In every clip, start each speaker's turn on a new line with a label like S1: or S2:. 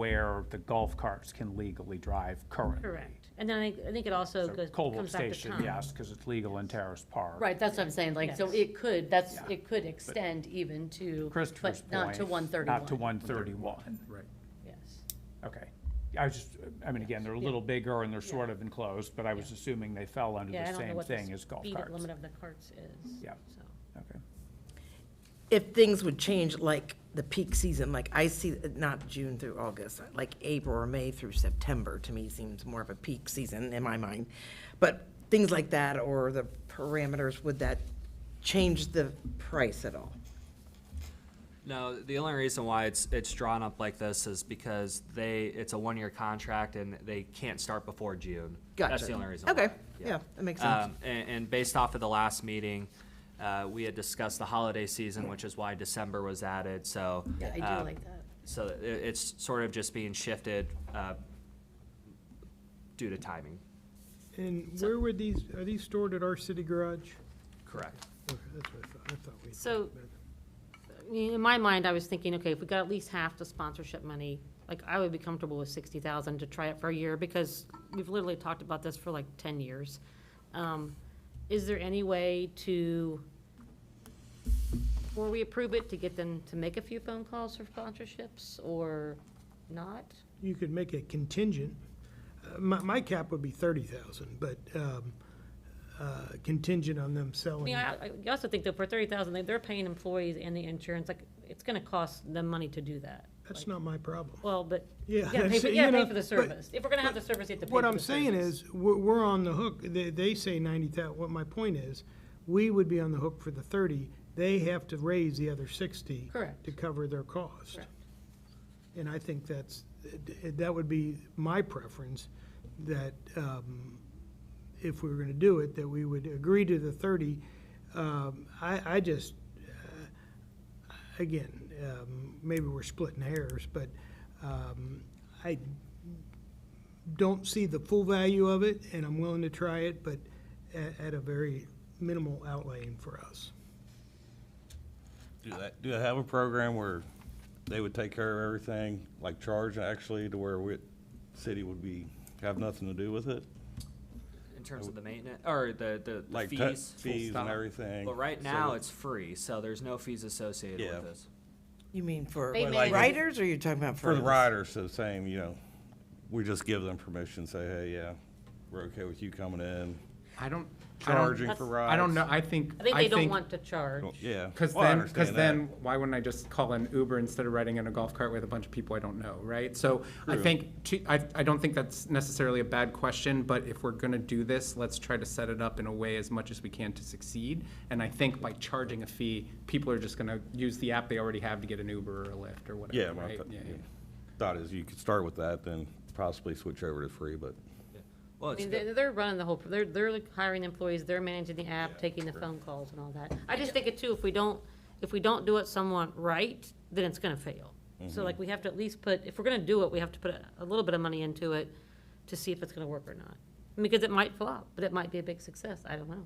S1: where the golf carts can legally drive currently.
S2: Correct. And then I, I think it also
S1: So
S2: goes,
S1: Coldwell
S2: comes back to
S1: Station,
S2: Tom.
S1: yes, because it's legal in Terrace Park.
S3: Right, that's what I'm saying, like, so
S2: Yes.
S3: it could, that's,
S1: Yeah.
S3: it could extend even to,
S1: Christopher's
S3: but
S1: point.
S3: not to one thirty-one.
S1: Not to one thirty-one,
S4: Right.
S3: Yes,
S1: okay. I was just, I mean, again, they're a little bigger and they're sort of enclosed, but I was assuming they fell under
S2: Yeah, I
S1: the
S2: don't know
S1: same
S2: what the
S1: thing as golf
S2: speed
S1: carts.
S2: limit of the carts is.
S1: Yeah.
S2: so.
S1: Okay.
S5: if things would change, like the peak season, like I see, not June through August, like April or May through September, to me seems more of a peak season in my mind. But things like that, or the parameters, would that change the price at all?
S6: No, the only reason why it's, it's drawn up like this is because they, it's a one-year contract and they can't start before June. That's
S5: Gotcha.
S6: the only reason.
S5: Okay,
S6: why,
S5: yeah, that makes sense.
S6: Um, And, and based off of the last meeting, uh, we had discussed the holiday season, which is why December was added, so.
S3: yeah, I do
S6: um,
S3: like that.
S6: So it, it's sort of just being shifted, uh, due to timing.
S4: And where would these, are these stored at our city garage?
S6: Correct.
S4: Okay, that's what I thought, I thought we.
S2: So, I mean, in my mind, I was thinking, okay, if we got at least half the sponsorship money, like, I would be comfortable with sixty thousand to try it for a year, because we've literally talked about this for like ten years. Um, Is there any way to, before we approve it, to get them to make a few phone calls for sponsorships, or not?
S4: You could make it contingent. Uh, My, my cap would be thirty thousand, but, um, uh, contingent on them
S2: I
S4: selling.
S2: mean, I, I also think that for thirty thousand, they're paying employees and the insurance, like, it's gonna cost them money to do that.
S4: That's not my problem.
S2: Well, but you
S4: Yeah,
S2: gotta pay, for-
S4: I'm
S2: you gotta
S4: saying, you
S2: pay
S4: know,
S2: for the
S4: but-
S2: service. If we're gonna have the service, you have to pay for
S4: What
S2: the
S4: I'm saying
S2: service.
S4: is, we're, we're on the hook, they, they say ninety thou, what my point is, we would be on the hook for the thirty, they have to raise the other sixty.
S2: Correct.
S4: To cover their cost.
S2: Correct.
S4: And I think that's, that would be my preference, that, um, if we were gonna do it, that we would agree to the thirty. Um, I, I just, uh, again, um, maybe we're splitting hairs, but, um, I don't see the full value of it, and I'm willing to try it, but at, at a very minimal outlaying for us.
S7: Do that, do they have a program where they would take care of everything, like charge actually, to where we, city would be, have nothing to do with it?
S6: In terms of the maintenance, or the, the- the
S7: Like tu-
S6: fees.
S7: fees and
S6: Full stop.
S7: everything.
S6: But right
S7: So
S6: now,
S7: that-
S6: it's free, so there's no fees associated
S7: Yeah.
S6: with this.
S5: You mean for
S2: They
S7: may-
S5: riders, or you're talking about for?
S7: For the
S5: others?
S7: riders, so same, you know, we just give them permission, say, hey, yeah, we're okay with you coming in,
S8: I don't. I don't-
S7: charging for rides.
S8: I don't know, I think.
S2: I think they don't want to charge.
S7: Well, Yeah.
S8: Because
S7: Well, I
S8: then, because
S7: understand that.
S8: then, why wouldn't I just call an Uber instead of riding in a golf cart with a bunch of people I don't know, right? So I
S7: True.
S8: think, to- I, I don't think that's necessarily a bad question, but if we're gonna do this, let's try to set it up in a way as much as we can to succeed. And I think by charging a fee, people are just gonna use the app they already have to get an Uber or a Lyft or
S7: Yeah,
S8: whatever,
S7: my
S8: right?
S7: thought-
S8: Yeah,
S7: yeah.
S8: yeah.
S7: thought is you could start with that, then possibly switch over to free, but.
S6: Well,
S2: I
S6: it's
S2: mean,
S6: good.
S2: they're, they're running the whole, they're, they're like hiring employees, they're managing the app, taking the phone calls and all that. I just think it too, if we don't, if we don't do it somewhat right, then it's gonna fail. So like, we have to at least put, if we're gonna do it, we have to put a- a little bit of money into it to see if it's gonna work or not. Because it might flop, but it might be a big success, I don't know.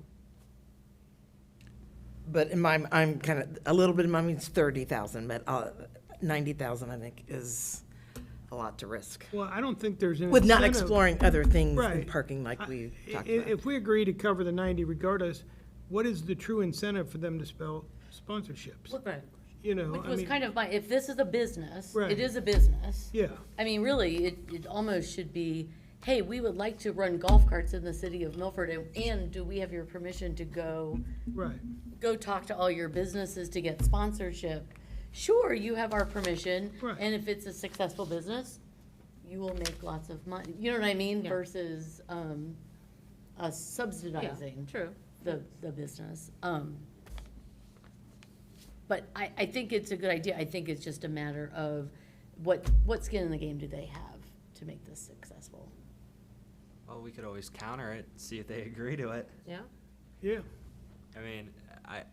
S5: But in my, I'm kind of, a little bit in my means thirty thousand, but uh, ninety thousand, I think, is a lot to risk.
S4: Well, I don't think there's an
S5: With not
S4: incentive-
S5: exploring other things in
S4: Right.
S5: parking like
S4: I-
S5: we
S4: i-
S5: talked
S4: i-
S5: about.
S4: If we agree to cover the ninety regardless, what is the true incentive for them to spell sponsorships? You know,
S3: Which
S4: I
S3: was
S4: mean,
S3: kind of my, if this is a business,
S4: Right.
S3: it is a business.
S4: yeah,
S3: I mean, really, it, it almost should be, hey, we would like to run golf carts in the city of Milford, and, and do we have your permission to go,
S4: right.
S3: go talk to all your businesses to get sponsorship? Sure, you have our permission,
S4: Right.
S3: and if it's a successful business, you will make lots of money, you know what I mean,
S2: Yeah.
S3: versus, um, us
S2: Yeah,
S3: subsidizing
S2: true.
S3: the, the business. Um, But I, I think it's a good idea. I think it's just a matter of what, what skin in the game do they have to make this successful?
S6: Well, we could always counter it, see if they agree to it.
S2: Yeah?
S4: Yeah,
S6: I mean, I,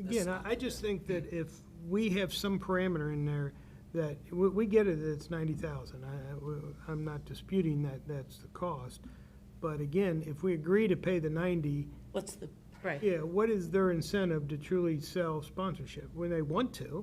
S4: again, I, I just think that if we have some parameter in there that, we, we get it, that it's ninety thousand. I, I- we- I'm not disputing that, that's the cost. But again, if we agree to pay the ninety,
S3: What's the
S2: Right.
S4: yeah, what is their incentive to truly sell sponsorship? When they want to,